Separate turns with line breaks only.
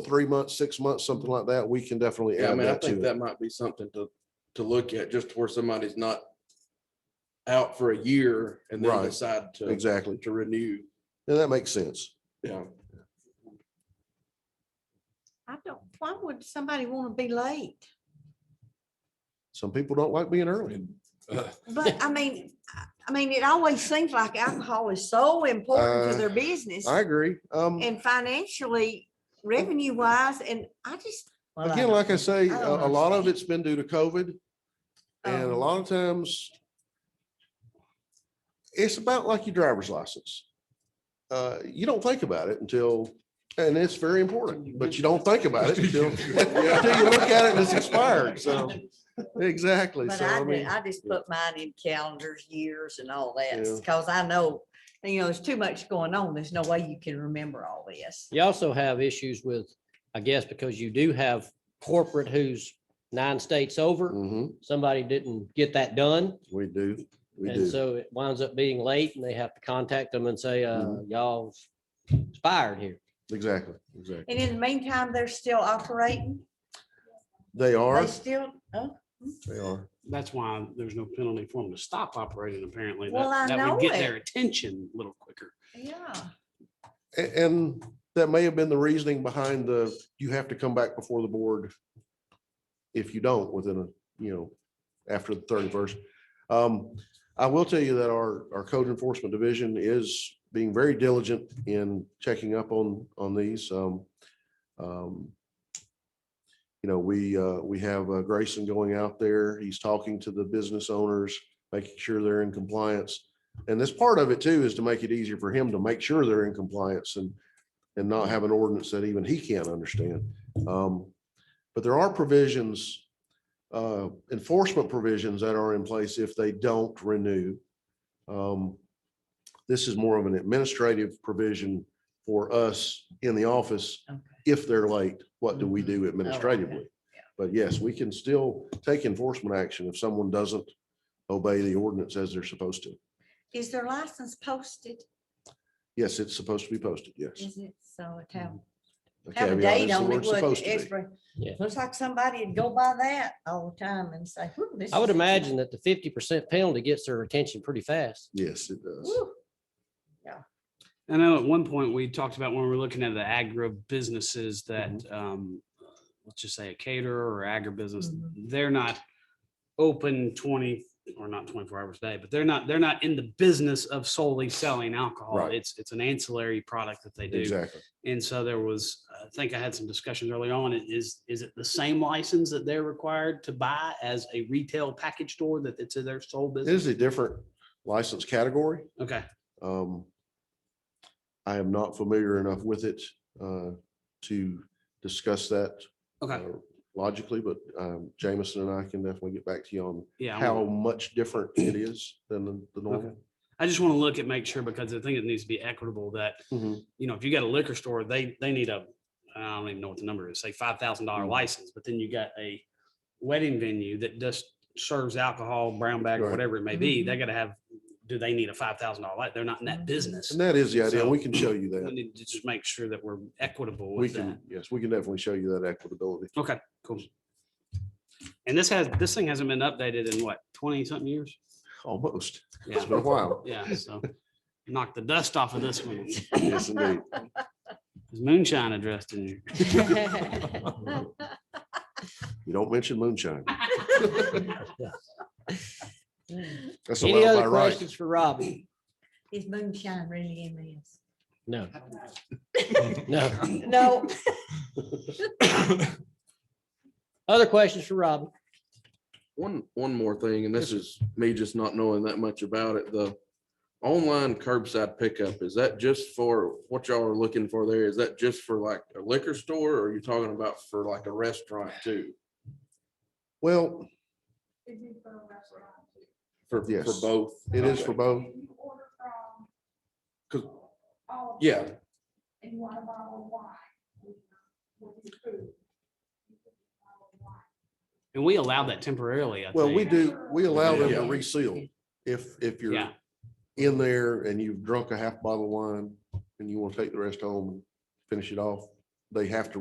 three months, six months, something like that, we can definitely
Yeah, I
add
mean, I
that
think
to it.
that might be something to, to look at, just where somebody's not out for a year and then
Right.
decide to,
Exactly.
to renew, Um,
And that makes sense.
yeah.
I don't, why would somebody want to be late?
Some people don't like being early.
But I mean, I- I mean, it always seems like alcohol is so important
Uh,
to their business
I agree. Um,
and financially, revenue wise, and I just.
Well, I
again,
don't
like I
know.
say,
I
a,
don't
a lot of
understand.
it's been due to COVID and a
um,
lot of times it's about like your driver's license. Uh, you don't think about it until, and it's very important, but you don't think about it until, until you look at it and it's expired. So, exactly.
But
So,
I
I
did,
mean,
I just put mine in calendars, years and all that,
Yeah.
because I know, you know, there's too much going on. There's no way you can remember all this.
You also have issues with, I guess, because you do have corporate who's nine states over.
mhm,
Somebody didn't get that done.
we do, we
And
do.
so it winds up being late and they have to contact them and say, uh,
Mm-hmm.
y'all expired here.
Exactly, exactly.
And in the meantime, they're still operating.
They are,
They still, oh,
they are.
That's why there's no penalty for them to stop operating apparently. That-
Well, I
That
know
would get
it.
their attention a little quicker.
yeah.
A- And that may have been the reasoning behind the, you have to come back before the board if you don't within a, you know, after the thirty-first. Um, I will tell you that our, our code enforcement division is being very diligent in checking up on, on these. Um, um, You know, we, uh, we have uh, Grayson going out there. He's talking to the business owners, making sure they're in compliance. And this part of it too is to make it easier for him to make sure they're in compliance and, and not have an ordinance that even he can't understand. Um, But there are provisions, uh, enforcement provisions that are in place if they don't renew. Um, This is more of an administrative provision for us in the office.
Okay.
If they're late, what do we do
Oh,
administratively? But yes, we can still take enforcement action if someone doesn't obey the ordinance as they're supposed to.
Is their license posted?
Yes, it's supposed to be posted, yes.
Is it? So it have,
The
have a
caveat is
date
the
on it.
word's
wouldn't
supposed
it?
to be.
It's-
Yeah.
Looks like somebody would go by that all the time and say, "Whew, this.
I would
is-
imagine that the fifty percent penalty gets their attention pretty fast.
Yes, it does.
Whew,
I know at one point we talked about when we were looking at the agro businesses
Mm-hmm.
that, um, let's just say a caterer or agribusiness,
Mm-hmm.
Mhm.
they're not open twenty or not twenty-four hours a day, but they're not, they're not in the business of solely selling alcohol.
Right.
It's, it's an ancillary product that they do.
Exactly.
And so there was, I think I had some discussions early on, i- is, is it the same license that they're required to buy as a retail package store that it's their sole
It
business?
is a different license category.
Okay,
Um, I am not familiar enough with it uh, to discuss that
okay,
uh, logically, but um, Jameson and I can definitely get back to you on
yeah. I'm-
how much different it is than the- the normal.
I just want to look at, make sure, because I think it needs to be equitable that,
Mhm.
you know, if you got a liquor store, they, they need a, I don't even know what the number is, say five thousand dollar
Mhm.
license, but then you got a wedding venue that just serves alcohol, brown bag or
Right.
whatever it may be,
Mm-hmm.
they gotta have, do they need a five thousand dollar light? They're not in that
Mhm.
business.
And that is the idea.
So-
We can show you
We
that.
need to just make sure that we're equitable
We
with that.
can, yes, we can definitely show you that equitability.
Okay, cool. And this has, this thing hasn't been updated in what, twenty something years?
Almost. It's
Yeah,
been a while.
yeah, so knock the dust off of this one. Is
Yes, indeed.
moonshine addressed in here?
You don't mention moonshine. That's
Any
allowed by
other
right.
questions for Robbie?
Is moonshine really in this?
No. No.
No.
Other questions for Robbie?
One, one more thing, and this is me just not knowing that much about it, the online curbside pickup, is that just for what y'all are looking for there? Is that just for like a liquor store or are you talking about for like a restaurant too?
Well,
For, for
Yes.
both?
it is for both.
Yeah,
And we allow that temporarily, I think.
Well, we do, we allow them to
Yeah.
reseal if, if you're
Yeah.
in there and you've drunk a half bottle of wine and you want to take the rest home, and finish it off, they have to